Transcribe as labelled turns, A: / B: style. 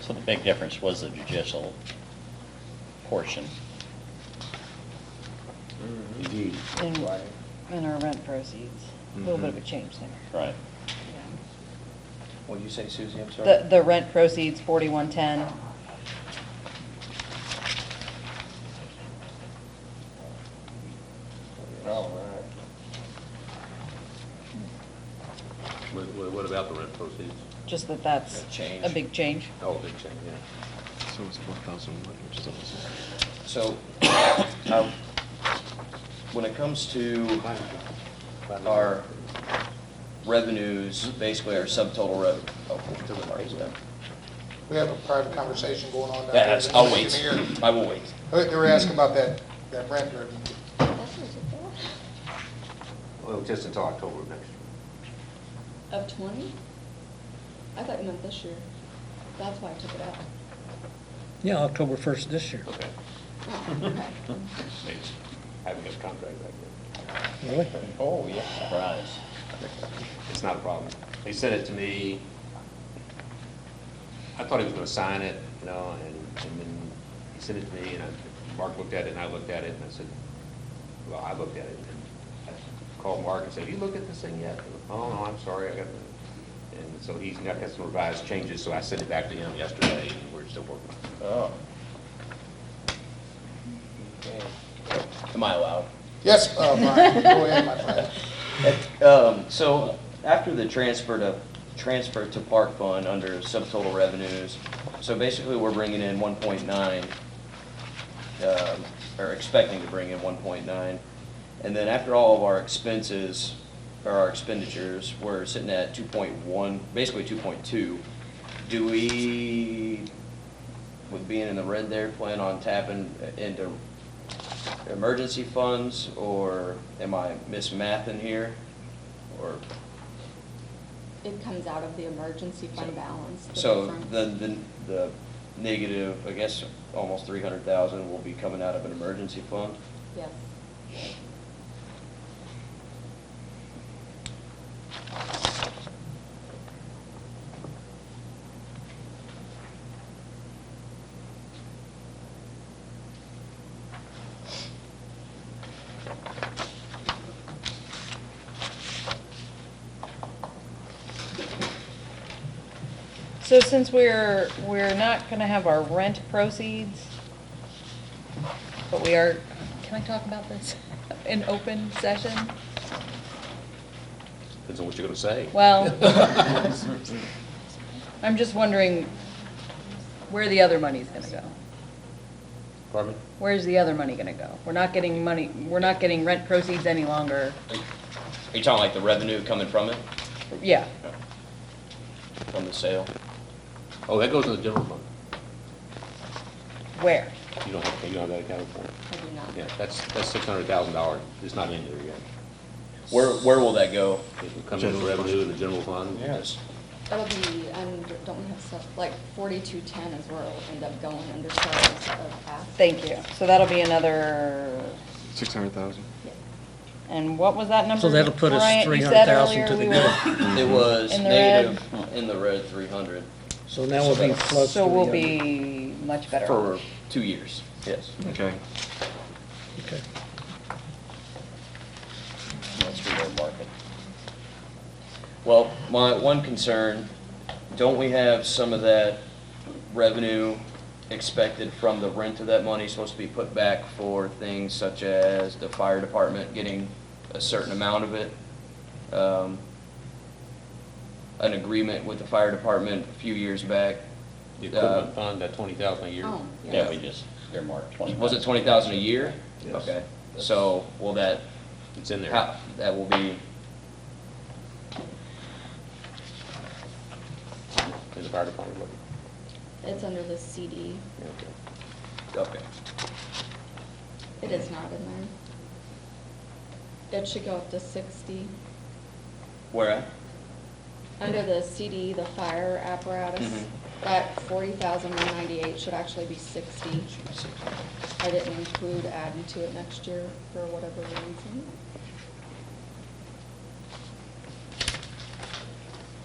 A: So the big difference was the judicial portion.
B: Indeed.
C: in, in our rent proceeds. A little bit of a change there.
A: Right.
C: Yeah.
D: What'd you say, Susie? I'm sorry.
C: The, the rent proceeds, forty-one ten,
D: Oh, all right.
E: What, what what about the rent proceeds?
C: just that that's
D: That change.
C: a big change.
E: Oh, big change, yeah.
B: So it's four thousand one, which is almost.
D: So, um, when it comes to our revenues,
E: Mm-hmm.
D: basically our subtotal rev, oh, we'll mark it down.
F: We have a private conversation going on down there.
D: That's, I'll
F: Nobody
D: wait.
F: can hear.
D: I will wait.
F: They they were asking about that, that rent revenue.
B: Well, just until October of next year.
G: Of twenty? I thought you meant this year. That's why I took it out.
H: Yeah, October 1st this year.
E: Okay. Having a contract back then.
H: Really?
D: Oh, yeah.
A: Surprise.
E: It's not a problem. He sent it to me. I thought he was gonna sign it, you know, and, and then he sent it to me, and I, Mark looked at it, and I looked at it, and I said, well, I looked at it, and I called Mark and said, you looked at this thing yet? He goes, Oh, no, I'm sorry, I got, the-" and so he's got got some revised changes, so I sent it back to him yesterday, and we're still working. on
D: Oh. Okay. Am I allowed?
F: Yes, uh, Brian, go ahead, my friend.
D: Um, So after the transfer to, transfer to park fund under subtotal revenues, so basically we're bringing in 1.9, um, or expecting to bring in 1.9. And then after all of our expenses, or our expenditures, we're sitting at 2.1, basically 2.2. Do we, with being in the red there, plan on tapping into emergency funds, or am I mismathing here? Or,
G: It comes out of the emergency fund balance. the
D: so
G: difference.
D: the, the, the negative, I guess, almost three hundred thousand will be coming out of an emergency fund?
G: Yes.
C: So since we're, we're not gonna have our rent proceeds, but we are, can I talk about this in open session?
E: it. Depends on what you're gonna say.
C: Well, I'm just wondering where the other money's gonna go.
E: Pardon me?
C: Where's the other money gonna go? We're not getting money, we're not getting rent proceeds any longer.
D: Are you talking like the revenue coming from it,
C: Yeah,
D: from the sale?
E: Oh, that goes in the general fund.
C: where?
E: You don't have, you don't have that accounted for.
G: I do not.
E: Yeah, that's, that's six hundred thousand dollars. It's not in there yet.
D: Where, where will that go?
E: It will come in as revenue in the general fund.
D: Yes.
G: That'll be, under don't we have stuff, like forty-two ten is where it'll end up going under sales of assets.
C: Thank you. So that'll be another,
B: Six hundred thousand.
G: Yeah.
C: and what was that number?
H: So that'll put us
C: Bryant, you said
H: 300,000
C: earlier
H: to the
C: we
H: good.
C: were-
D: It was
C: In the red.
D: negative, in the red, three hundred.
H: So now we'll be close to
C: So we'll
H: the other-
C: be much better.
D: For two years, yes.
B: Okay.
H: Okay.
D: That's real market. Well, my one concern, don't we have some of that revenue expected from the rent of that money supposed to be put back for things such as the fire department getting a certain amount of it? Um, An agreement with the fire department a few years back. Uh,
E: The equipment fund, that twenty thousand a year.
G: Oh, yes.
A: Yeah, we just earmarked twenty.
D: Was it twenty thousand a year?
E: Yes.
D: Okay, so will that,
E: It's in there.
D: how- that will be,
E: In the fire department. budget.
G: It's under the CD.
E: Yeah, okay.
D: okay.
G: It is not in there. It should go up to sixty.
D: Where at?
G: Under the CD, the fire apparatus, that forty thousand one ninety-eight should actually be sixty. I didn't include adding to it next year for whatever reason.